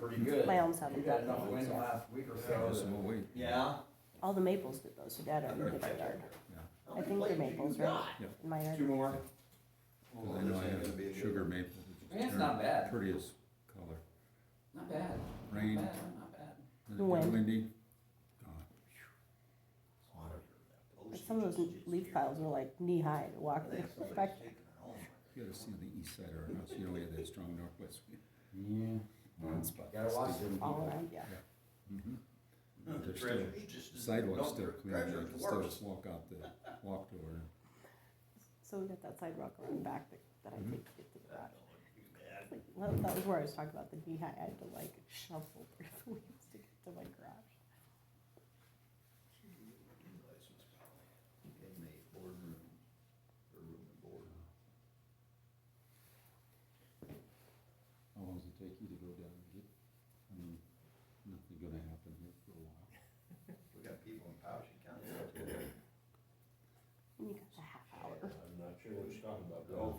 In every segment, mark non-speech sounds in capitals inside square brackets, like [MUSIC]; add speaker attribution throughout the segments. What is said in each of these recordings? Speaker 1: pretty good.
Speaker 2: My elms haven't
Speaker 1: We've had
Speaker 2: done
Speaker 1: enough
Speaker 2: those
Speaker 1: wind the
Speaker 2: yet.
Speaker 1: last week or so.
Speaker 3: Just a
Speaker 1: that-
Speaker 3: week.
Speaker 1: Yeah.
Speaker 2: All the maples did those, so dad already did their yard.
Speaker 1: How
Speaker 2: I
Speaker 1: many
Speaker 2: think they're
Speaker 1: plates you
Speaker 2: maples,
Speaker 1: got?
Speaker 2: right? in my yard.
Speaker 1: Two more?
Speaker 3: I know I have sugar maple.
Speaker 1: I mean, it's not bad.
Speaker 3: Prettiest color.
Speaker 1: Not bad,
Speaker 3: Rain, uh,
Speaker 1: not bad, not bad.
Speaker 3: is it
Speaker 2: When?
Speaker 3: windy. Gone.
Speaker 2: Like some of those leaf piles were like knee high to walk through. Back-
Speaker 3: You gotta see the east side of our house, you know, we had that strong northwest wind.
Speaker 1: Yeah.
Speaker 3: One spot.
Speaker 1: Gotta watch them.
Speaker 2: all around, yeah.
Speaker 3: There's still, sidewalk's still clean, you can still just walk out the,
Speaker 1: [LAUGHS]
Speaker 3: walk door.
Speaker 2: So we got that sidewalk around back that, that
Speaker 4: Mm-hmm.
Speaker 2: I take to get to the garage. It's Like, well, that was where I was talking about the knee high. I had to like shuffle through the [LAUGHS] weeds to get to my garage.
Speaker 3: How long does it take you to go down and get, I mean, nothing gonna happen here for a while.
Speaker 4: We got people in Powashik County.
Speaker 2: And you got a half hour.
Speaker 5: I'm not sure what you're talking about,
Speaker 1: Oh.
Speaker 5: though.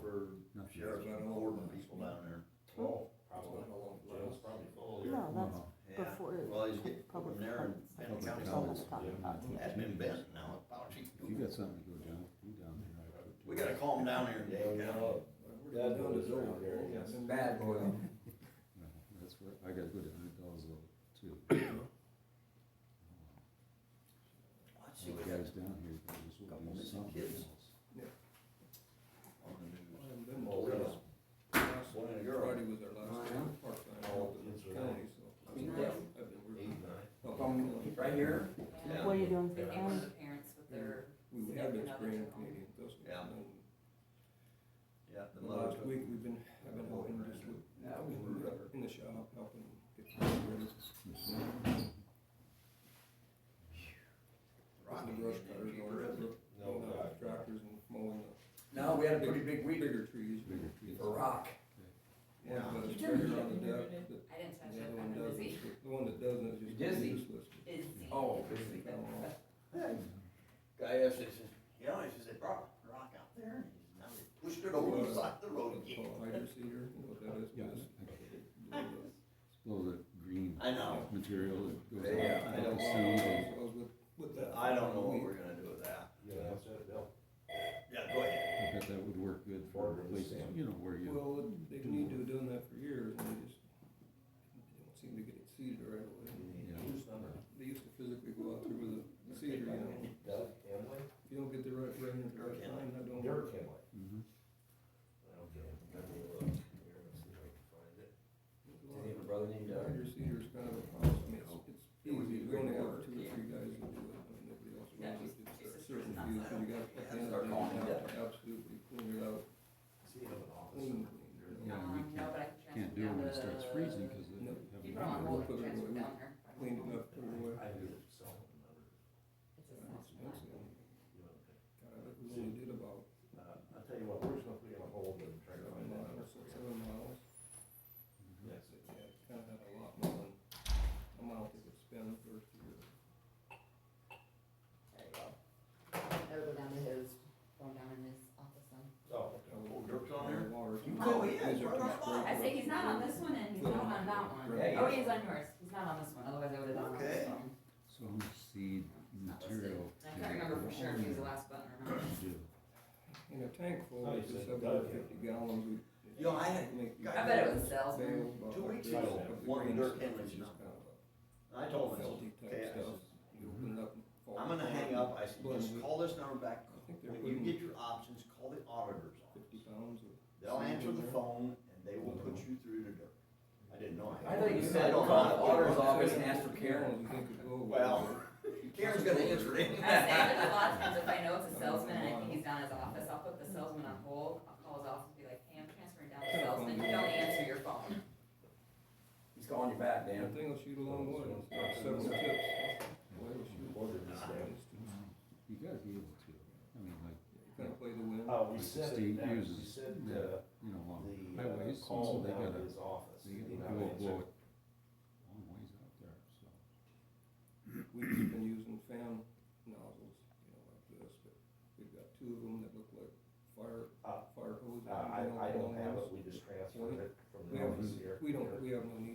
Speaker 3: Nothing.
Speaker 4: Sheriff's running over people down there.
Speaker 5: Oh, probably. Jail's probably full. here.
Speaker 2: No, that's
Speaker 3: Well,
Speaker 4: Yeah.
Speaker 2: before
Speaker 4: Well, he's getting
Speaker 2: public
Speaker 4: from there
Speaker 2: funds.
Speaker 4: and Pendle County.
Speaker 2: That's what I'm talking about today.
Speaker 4: That's been bent now at Powashik.
Speaker 3: If you got something to go down, do down there. I could do
Speaker 4: We
Speaker 3: it.
Speaker 4: gotta calm down here,
Speaker 6: Oh,
Speaker 5: Yeah,
Speaker 4: Dave.
Speaker 5: no. Yeah, no, there's over there, yes.
Speaker 1: Some bad oil.
Speaker 3: No, That's where, I gotta go to Hunt Dolls
Speaker 4: [COUGHS]
Speaker 3: too.
Speaker 4: Let's see
Speaker 3: So
Speaker 4: what
Speaker 3: the
Speaker 4: happens
Speaker 3: guys down here, they just will
Speaker 4: Couple
Speaker 3: do
Speaker 4: missing
Speaker 3: something
Speaker 4: kids.
Speaker 3: else.
Speaker 4: on the news.
Speaker 5: Well,
Speaker 4: One of the girls.
Speaker 6: Friday was our
Speaker 1: Oh,
Speaker 6: last day of park night, all of the counties, so.
Speaker 5: I mean,
Speaker 7: yeah.
Speaker 6: I've been
Speaker 5: eight,
Speaker 6: working.
Speaker 5: nine.
Speaker 1: From right here,
Speaker 7: Yeah.
Speaker 2: What are you doing for
Speaker 7: They
Speaker 2: the
Speaker 7: were
Speaker 2: county?
Speaker 7: the parents with their,
Speaker 6: We have been spraying Canadian dust.
Speaker 4: Yeah.
Speaker 6: And
Speaker 4: Yeah, the
Speaker 6: The
Speaker 4: mother
Speaker 6: last
Speaker 4: took.
Speaker 6: week, we've been, I've been helping just with,
Speaker 1: Yeah, we
Speaker 6: in
Speaker 1: were-
Speaker 6: the- in the shop, helping get things ready.
Speaker 4: Rocky,
Speaker 6: Putting the brush cutters
Speaker 4: and
Speaker 6: on,
Speaker 4: Peter Evans.
Speaker 5: No,
Speaker 6: putting
Speaker 5: God.
Speaker 6: out tractors and mowing the
Speaker 1: no, we had a pretty big weed
Speaker 6: bigger trees.
Speaker 3: Bigger trees.
Speaker 1: for rock.
Speaker 6: One of
Speaker 4: Yeah.
Speaker 6: us
Speaker 7: You turned
Speaker 6: sprayed
Speaker 7: it
Speaker 6: on the
Speaker 7: in,
Speaker 6: deck,
Speaker 7: didn't
Speaker 6: but
Speaker 7: I didn't touch
Speaker 6: the
Speaker 7: it,
Speaker 6: other one
Speaker 7: I'm
Speaker 6: doesn't,
Speaker 7: busy.
Speaker 6: the one that doesn't is just.
Speaker 1: Dizzy.
Speaker 6: useless.
Speaker 7: [LAUGHS] Busy.
Speaker 1: Oh, busy.
Speaker 6: Fell off.
Speaker 4: Guy asked, he says, you know, he says, they brought a rock out there and he's, now they pushed it over the side of the road
Speaker 6: It's
Speaker 4: again.
Speaker 6: called hydro cedar, you know what that is?
Speaker 3: Yeah,
Speaker 6: It's-
Speaker 3: I- I-
Speaker 6: it's-
Speaker 3: blow the green
Speaker 4: I know.
Speaker 3: material that goes
Speaker 4: Yeah,
Speaker 3: out.
Speaker 4: I don't-
Speaker 3: the seed.
Speaker 4: I don't know what we're gonna do with that.
Speaker 5: Yeah, that's it, Bill.
Speaker 4: Yeah, go ahead.
Speaker 3: I bet that would work good for
Speaker 5: Border the
Speaker 3: places,
Speaker 5: sand.
Speaker 3: you know, where you,
Speaker 6: Well, they've need to have done that for years, and they just, they don't seem to get it seeded right away.
Speaker 3: Yeah.
Speaker 5: Who's number?
Speaker 6: They used to physically go out there with a seeder, you know, if
Speaker 5: Doug Henley?
Speaker 6: you don't get the right rain at the right time, that don't work.
Speaker 5: Derek Henley.
Speaker 3: Mhm.
Speaker 5: Okay, let me look here and see if I can find it. Does he have a brother named Doug?
Speaker 6: Hydro cedar's kind of a problem, I mean, it's, it's
Speaker 4: It would be
Speaker 6: easy, we only have
Speaker 4: great
Speaker 6: two or three guys that do it, I mean, nobody else
Speaker 7: Yeah,
Speaker 6: wants
Speaker 7: she's-
Speaker 6: it,
Speaker 7: she's
Speaker 6: it's a
Speaker 7: just
Speaker 6: certain
Speaker 7: not
Speaker 6: few,
Speaker 7: that.
Speaker 6: so you got, at the end
Speaker 4: Start
Speaker 6: of the day,
Speaker 4: calling
Speaker 6: you
Speaker 4: him
Speaker 6: have to absolutely clean it out,
Speaker 5: Does he have an office?
Speaker 6: clean,
Speaker 3: Yeah,
Speaker 6: clean,
Speaker 3: we
Speaker 7: Um, no,
Speaker 3: can't-
Speaker 7: but I can transfer
Speaker 3: can't do it when it
Speaker 7: down
Speaker 3: starts
Speaker 7: the-
Speaker 3: freezing, cause they
Speaker 6: No.
Speaker 3: have
Speaker 7: You
Speaker 3: a
Speaker 7: put it on
Speaker 3: winter.
Speaker 7: hold,
Speaker 6: Put it
Speaker 7: transfer
Speaker 6: away.
Speaker 7: down there.
Speaker 6: clean it up, put it away.
Speaker 5: I do it, so. another,
Speaker 7: It's
Speaker 6: It's
Speaker 7: just not much.
Speaker 6: expensive.
Speaker 5: you know, okay.
Speaker 6: God, I think we only did about
Speaker 5: Uh, I'll tell you what, we're just gonna put it on hold and try to
Speaker 6: seven
Speaker 5: find that.
Speaker 6: miles, six, seven miles.
Speaker 5: That's it.
Speaker 6: Yeah, kind of had a lot more than a mile to spend for year.
Speaker 7: There you go. That'll go down to his, going down in his office then.
Speaker 5: Oh, okay.
Speaker 4: Oh, Dirk's on there?
Speaker 6: Water.
Speaker 4: You go in, Oh, right on by.
Speaker 7: I say he's not on this one and he's not on that one.
Speaker 4: Yeah,
Speaker 7: Oh,
Speaker 4: yeah.
Speaker 7: he's on yours, he's not on this one, otherwise I would've done on this
Speaker 4: Okay.
Speaker 7: one.
Speaker 3: So how much seed
Speaker 7: It's not listed.
Speaker 3: material?
Speaker 7: I can't remember for sure if he was the last button or not.
Speaker 3: Do.
Speaker 6: In a tank full,
Speaker 5: Oh,
Speaker 6: it's
Speaker 5: you
Speaker 6: just
Speaker 5: said
Speaker 6: about
Speaker 5: Doug.
Speaker 6: fifty gallons. we-
Speaker 4: You know, I had-
Speaker 6: make you-
Speaker 4: I
Speaker 7: I bet it was a salesman.
Speaker 6: bales about
Speaker 4: Two weeks
Speaker 6: like this,
Speaker 5: ago,
Speaker 6: but the
Speaker 4: one of
Speaker 6: green
Speaker 4: Dirk
Speaker 6: stuff is
Speaker 4: Henley's
Speaker 6: just
Speaker 4: not.
Speaker 6: kind of
Speaker 4: I
Speaker 6: a
Speaker 4: told him,
Speaker 6: Felty type
Speaker 4: okay, I said,
Speaker 6: stuff. You open it up and fall
Speaker 4: I'm gonna hang
Speaker 6: apart.
Speaker 4: up, I said,
Speaker 6: Well,
Speaker 4: just call this number back,
Speaker 6: I think they're
Speaker 4: when you
Speaker 6: putting
Speaker 4: get your options, call the auditor's
Speaker 6: fifty
Speaker 4: office.
Speaker 6: pounds of.
Speaker 4: They'll
Speaker 6: seed
Speaker 4: answer
Speaker 6: in
Speaker 4: the
Speaker 6: there.
Speaker 4: phone and they will put you through to Dirk. I didn't know.
Speaker 1: I thought you
Speaker 4: had-
Speaker 1: said
Speaker 4: I don't
Speaker 1: call
Speaker 4: know.
Speaker 1: the auditor's office and
Speaker 6: Seven
Speaker 1: ask for Karen.
Speaker 6: gallons you think would go away.
Speaker 4: Well, Karen's gonna answer it.
Speaker 7: I say that a lot of times if I know it's a salesman and I think he's down at his office, I'll put the salesman on hold, I'll call his office and be like, hey, I'm transferring down to salesman, you don't answer your phone.
Speaker 1: He's calling you back,
Speaker 6: That
Speaker 1: Dan.
Speaker 6: thing will shoot a long way, it's got several tips. Boy, it'll shoot.
Speaker 5: Order this down.
Speaker 3: You gotta be able to, I mean, like,
Speaker 6: Kind of play the wind.
Speaker 1: Uh,
Speaker 5: Oh, we
Speaker 3: like the
Speaker 5: said, it
Speaker 3: state
Speaker 5: now. we
Speaker 3: uses
Speaker 5: said,
Speaker 3: that,
Speaker 5: uh,
Speaker 3: you know, along
Speaker 5: the uh,
Speaker 3: highways, and so
Speaker 5: call
Speaker 3: they
Speaker 5: down
Speaker 3: gotta,
Speaker 5: to his office.
Speaker 3: they
Speaker 5: He
Speaker 3: gotta
Speaker 5: not
Speaker 3: blow,
Speaker 5: answer.
Speaker 3: blow it long ways out there, so.
Speaker 6: We've just been using fan nozzles, you know, like this, but we've got two of them that look like fire,
Speaker 5: Uh,
Speaker 6: fire hoses.
Speaker 5: Uh, I,
Speaker 6: you know,
Speaker 5: I don't
Speaker 6: long
Speaker 5: have
Speaker 6: ones.
Speaker 5: it, we just transferred it from
Speaker 6: We
Speaker 5: the
Speaker 6: have-
Speaker 5: office here.
Speaker 6: We don't, we have no need